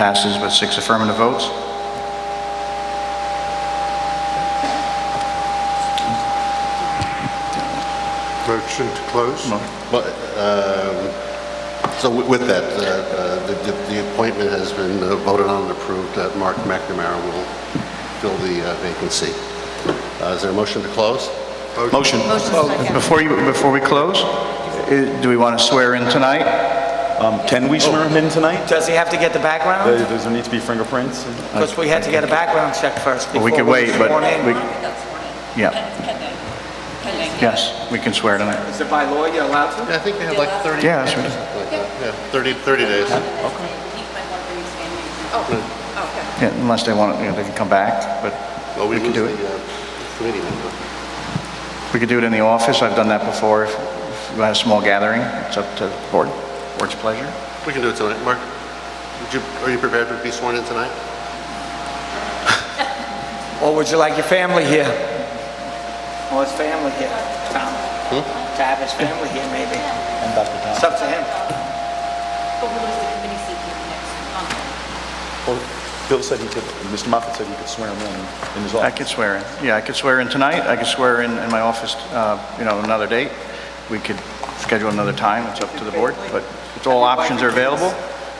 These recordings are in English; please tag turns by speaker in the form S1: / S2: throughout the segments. S1: Passes with six affirmative votes.
S2: Motion to close?
S3: But, um, so wi- with that, uh, uh, the- the the appointment has been uh, voted on and approved that Mark McNamara will fill the uh, vacancy. Uh, Is there a motion to close?
S1: Motion. Before you, before we close, i- do we want to swear in tonight?
S4: Um, Can we swear him in tonight?
S5: Does he have to get the
S4: Uh,
S5: background?
S4: Does there need to be fingerprints?
S5: Because we had to get a background check first
S1: Well,
S5: before
S1: we could
S5: we
S1: wait, but
S5: sworn in.
S1: we,
S6: That's morning.
S1: Yeah.
S6: Can- Can they, can they?
S1: yes, we can swear tonight.
S5: Is it by law you're allowed to?
S3: Yeah, I think they have like 30
S1: Yeah,
S3: days.
S1: that's right.
S3: Yeah, 30 30 days.
S6: Okay. He might want to expand it. Oh, okay.
S1: Yeah, Unless they want, you know, they can come back, but
S3: Well, we
S1: We can
S3: lose
S1: do
S3: the
S1: it.
S3: uh, committee member.
S1: we could do it in the office. I've done that before. If if you had a small gathering, it's up to the board, board's pleasure.
S3: We can do it tonight. Mark, would you- are you prepared to be sworn in tonight?
S5: Or would you like your family here? Or his family here, Tom?
S1: Hmm?
S5: To have his family here, maybe? It's up to him.
S6: But we'll lose the committee seat here next month.
S4: Well, Bill said he could, Mr. Moffett said he could swear him in in his
S1: I
S4: office.
S1: could swear in. Yeah, I could swear in tonight. I could swear in, in my office, uh, you know, another date. We could schedule another time. It's up to the board, but it's all options are available,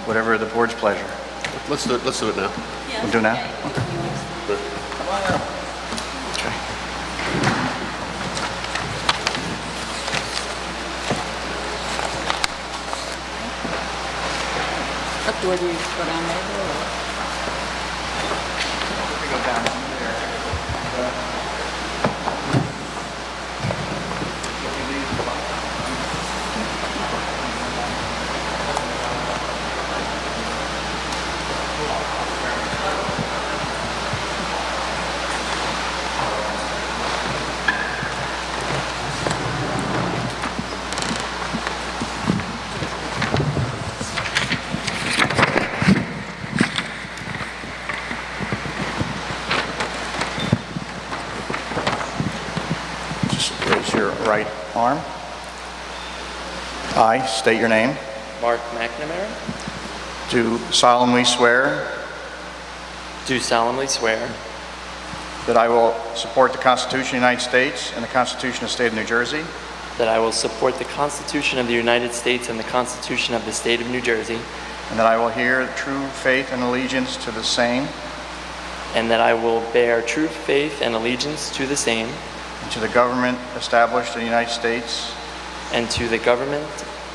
S1: whatever the board's pleasure.
S3: Let's do it, let's do it now.
S1: We'll do now? Okay.
S6: What door do you go down there?
S1: Just raise your right arm. I state your name.
S7: Mark McNamara,
S1: Do solemnly swear
S7: do solemnly swear
S1: that I will support the Constitution of the United States and the Constitution of the State of New Jersey,
S7: that I will support the Constitution of the United States and the Constitution of the State of New Jersey,
S1: and that I will hear true faith and allegiance to the same
S7: and that I will bear true faith and allegiance to the same
S1: and to the government established in the United States
S7: and to the government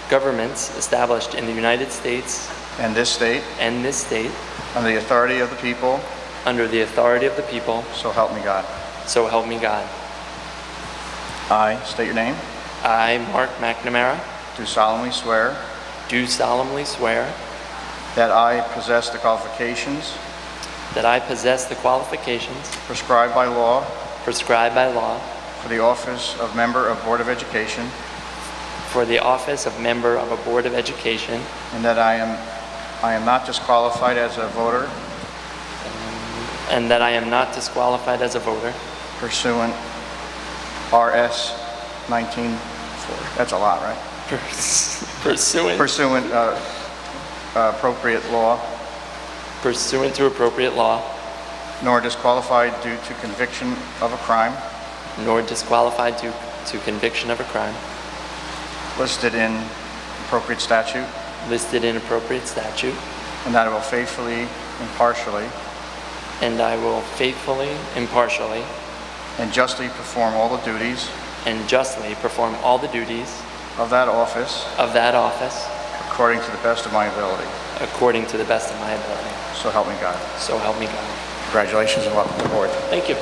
S7: governments established in the United States
S1: and this state
S7: and this state
S1: under the authority of the people,
S7: under the authority of the people,
S1: so help me God.
S7: so help me God.
S1: I state your name.
S7: I, Mark McNamara,
S1: Do solemnly swear
S7: do solemnly swear
S1: that I possess the qualifications
S7: that I possess the qualifications
S1: prescribed by law
S7: prescribed by law
S1: for the office of Member of Board of Education
S7: for the office of member of a Board of Education
S1: And that I am, I am not disqualified as a voter
S7: And that I am not disqualified as a voter
S1: pursuant RS 19, that's a lot, right?
S7: pursuant,
S1: Pursuant uh, appropriate law,
S7: pursuant to appropriate law,
S1: nor disqualified due to conviction of a crime
S7: nor disqualified due to conviction of a crime
S1: listed in appropriate statute,
S7: listed in appropriate statute,
S1: and that I will faithfully, impartially,
S7: and I will faithfully, impartially,
S1: and justly perform all the duties
S7: and justly perform all the duties
S1: of that office
S7: of that office
S1: according to the best of my ability.
S7: according to the best of my ability.
S1: So help me God.
S7: So help me God.
S1: Congratulations and welcome aboard.
S7: Thank you.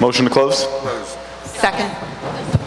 S4: Motion to close?
S6: Second.